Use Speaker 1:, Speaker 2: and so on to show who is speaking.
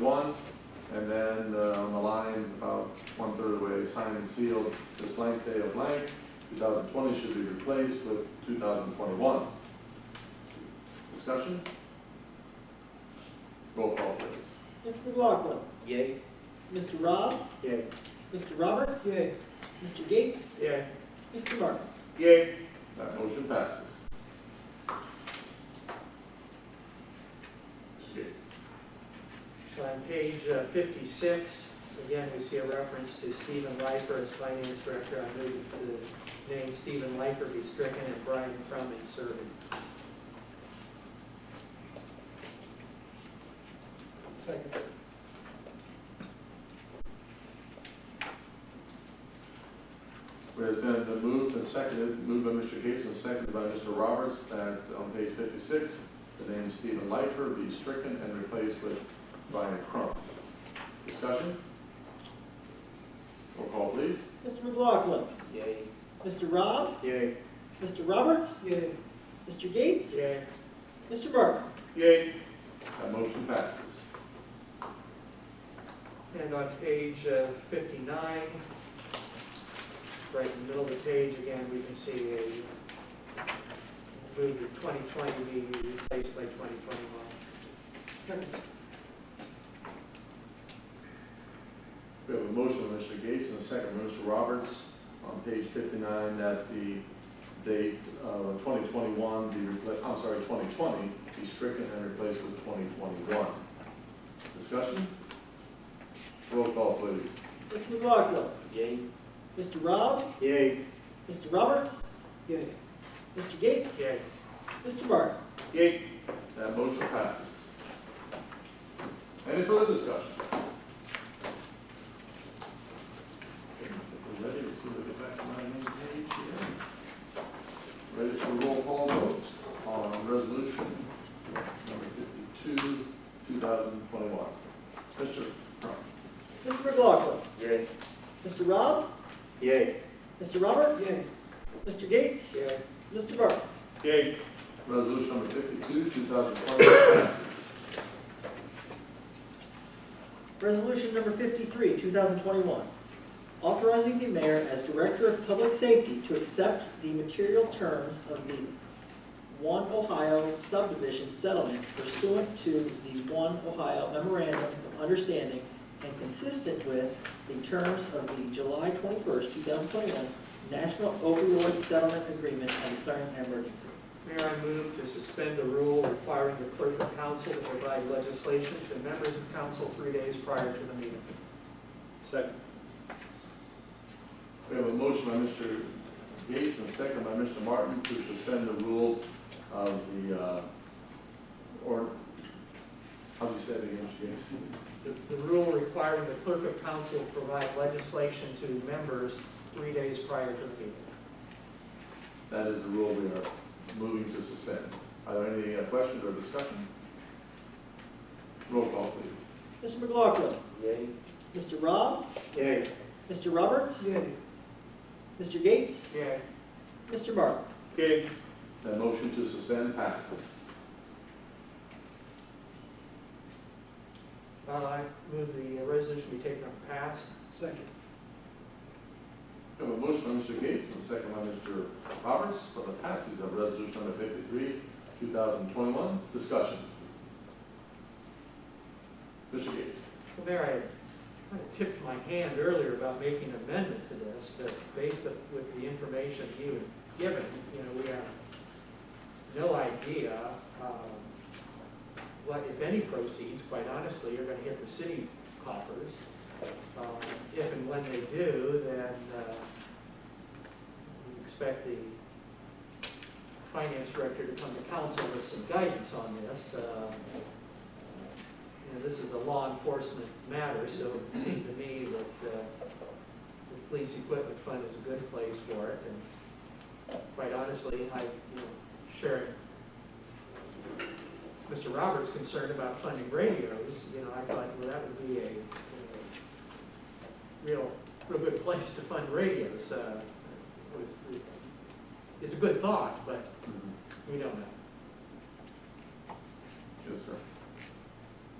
Speaker 1: one, and then uh, on the line, about one-third of the way, signed and sealed, this blank day of blank, 2020 should be replaced with 2021. Discussion? Roll call, please.
Speaker 2: Mr. McLaughlin.
Speaker 3: Yay.
Speaker 2: Mr. Rob.
Speaker 3: Yay.
Speaker 2: Mr. Roberts.
Speaker 3: Yay.
Speaker 2: Mr. Gates.
Speaker 3: Yay.
Speaker 2: Mr. Martin.
Speaker 3: Yay.
Speaker 1: That motion passes. Mr. Gates.
Speaker 3: So on page uh, fifty-six, again, we see a reference to Stephen Lifer as finance director. I move that the name Stephen Lifer be stricken and Brian Crum inserted. Second.
Speaker 1: It has been moved and seconded, moved by Mr. Gates and seconded by Mr. Roberts, that on page fifty-six, the name Stephen Lifer be stricken and replaced with Brian Crump. Discussion? Roll call, please.
Speaker 2: Mr. McLaughlin.
Speaker 3: Yay.
Speaker 2: Mr. Rob.
Speaker 3: Yay.
Speaker 2: Mr. Roberts.
Speaker 3: Yay.
Speaker 2: Mr. Gates.
Speaker 3: Yay.
Speaker 2: Mr. Martin.
Speaker 3: Yay.
Speaker 1: That motion passes.
Speaker 3: And on page uh, 59, right in the middle of the page, again, we can see a move to 2020 being replaced by 2021.
Speaker 1: We have a motion by Mr. Gates and a second by Mr. Roberts on page fifty-nine that the date of twenty twenty-one be repla, I'm sorry, twenty twenty be stricken and replaced with twenty twenty-one. Discussion? Roll call, please.
Speaker 2: Mr. McLaughlin.
Speaker 3: Yay.
Speaker 2: Mr. Rob.
Speaker 3: Yay.
Speaker 2: Mr. Roberts.
Speaker 3: Yay.
Speaker 2: Mr. Gates.
Speaker 3: Yay.
Speaker 2: Mr. Martin.
Speaker 3: Yay.
Speaker 1: That motion passes. Any further discussion? If we're Ready, let's move it back to my main page here. Ready for roll call vote on resolution number fifty-two, two thousand twenty-one. Mr. Crum.
Speaker 2: Mr. McLaughlin.
Speaker 3: Yay.
Speaker 2: Mr. Rob.
Speaker 3: Yay.
Speaker 2: Mr. Roberts. Mr. Gates.
Speaker 3: Yay.
Speaker 2: Mr. Martin.
Speaker 3: Yay.
Speaker 1: Resolution number fifty-two, two thousand twenty-one passes.
Speaker 2: Resolution number fifty-three, two thousand twenty-one, authorizing the mayor as director of public safety to accept the material terms of the One Ohio subdivision settlement pursuant to the One Ohio memorandum of understanding and consistent with the terms of the July twenty-first, two thousand twenty-one National Opioid Settlement Agreement and declaring an emergency.
Speaker 3: Mayor, I move to suspend the rule requiring the clerk of council to provide legislation to members of council three days prior to the meeting. Second.
Speaker 1: We have a motion by Mr. Gates and a second by Mr. Martin to suspend the rule of the, uh, or, how'd you say it again, Mr. Gates?
Speaker 3: The the rule requiring the clerk of council to provide legislation to members three days prior to the meeting.
Speaker 1: That is the rule we are moving to suspend. Are there any uh, questions or discussion? Roll call, please.
Speaker 2: Mr. McLaughlin,
Speaker 3: Yay.
Speaker 2: Mr. Rob,
Speaker 3: Yay.
Speaker 2: Mr. Roberts,
Speaker 3: Yay.
Speaker 2: Mr. Gates,
Speaker 3: Yay.
Speaker 2: Mr. Martin.
Speaker 3: Yay.
Speaker 1: That motion to suspend passes.
Speaker 3: Uh, I move the resolution be taken up past. Second.
Speaker 1: We have a motion by Mr. Gates and a second by Mr. Roberts for the passage of resolution number fifty-three, two thousand twenty-one. Discussion. Mr. Gates.
Speaker 3: Well, there I kind of tipped my hand earlier about making an amendment to this, but based on- with the information you had given, you know, we have no idea um, what, if any proceeds, quite honestly, are going to hit the city coffers. Um, If and when they do, then uh, we expect the finance director to come to council with some guidance on this. uh, Um, you know, this is a law enforcement matter, so it seemed to me that uh, the police equipment fund is a good place for it, and quite honestly, I, you know, share Mr. Roberts' concern about funding radios, you know, I thought, well, that would be a, you know, real, real good place to fund radios, uh, was,
Speaker 1: Mm-hmm.
Speaker 3: it's a good thought, but we don't know.
Speaker 1: Yes, sir.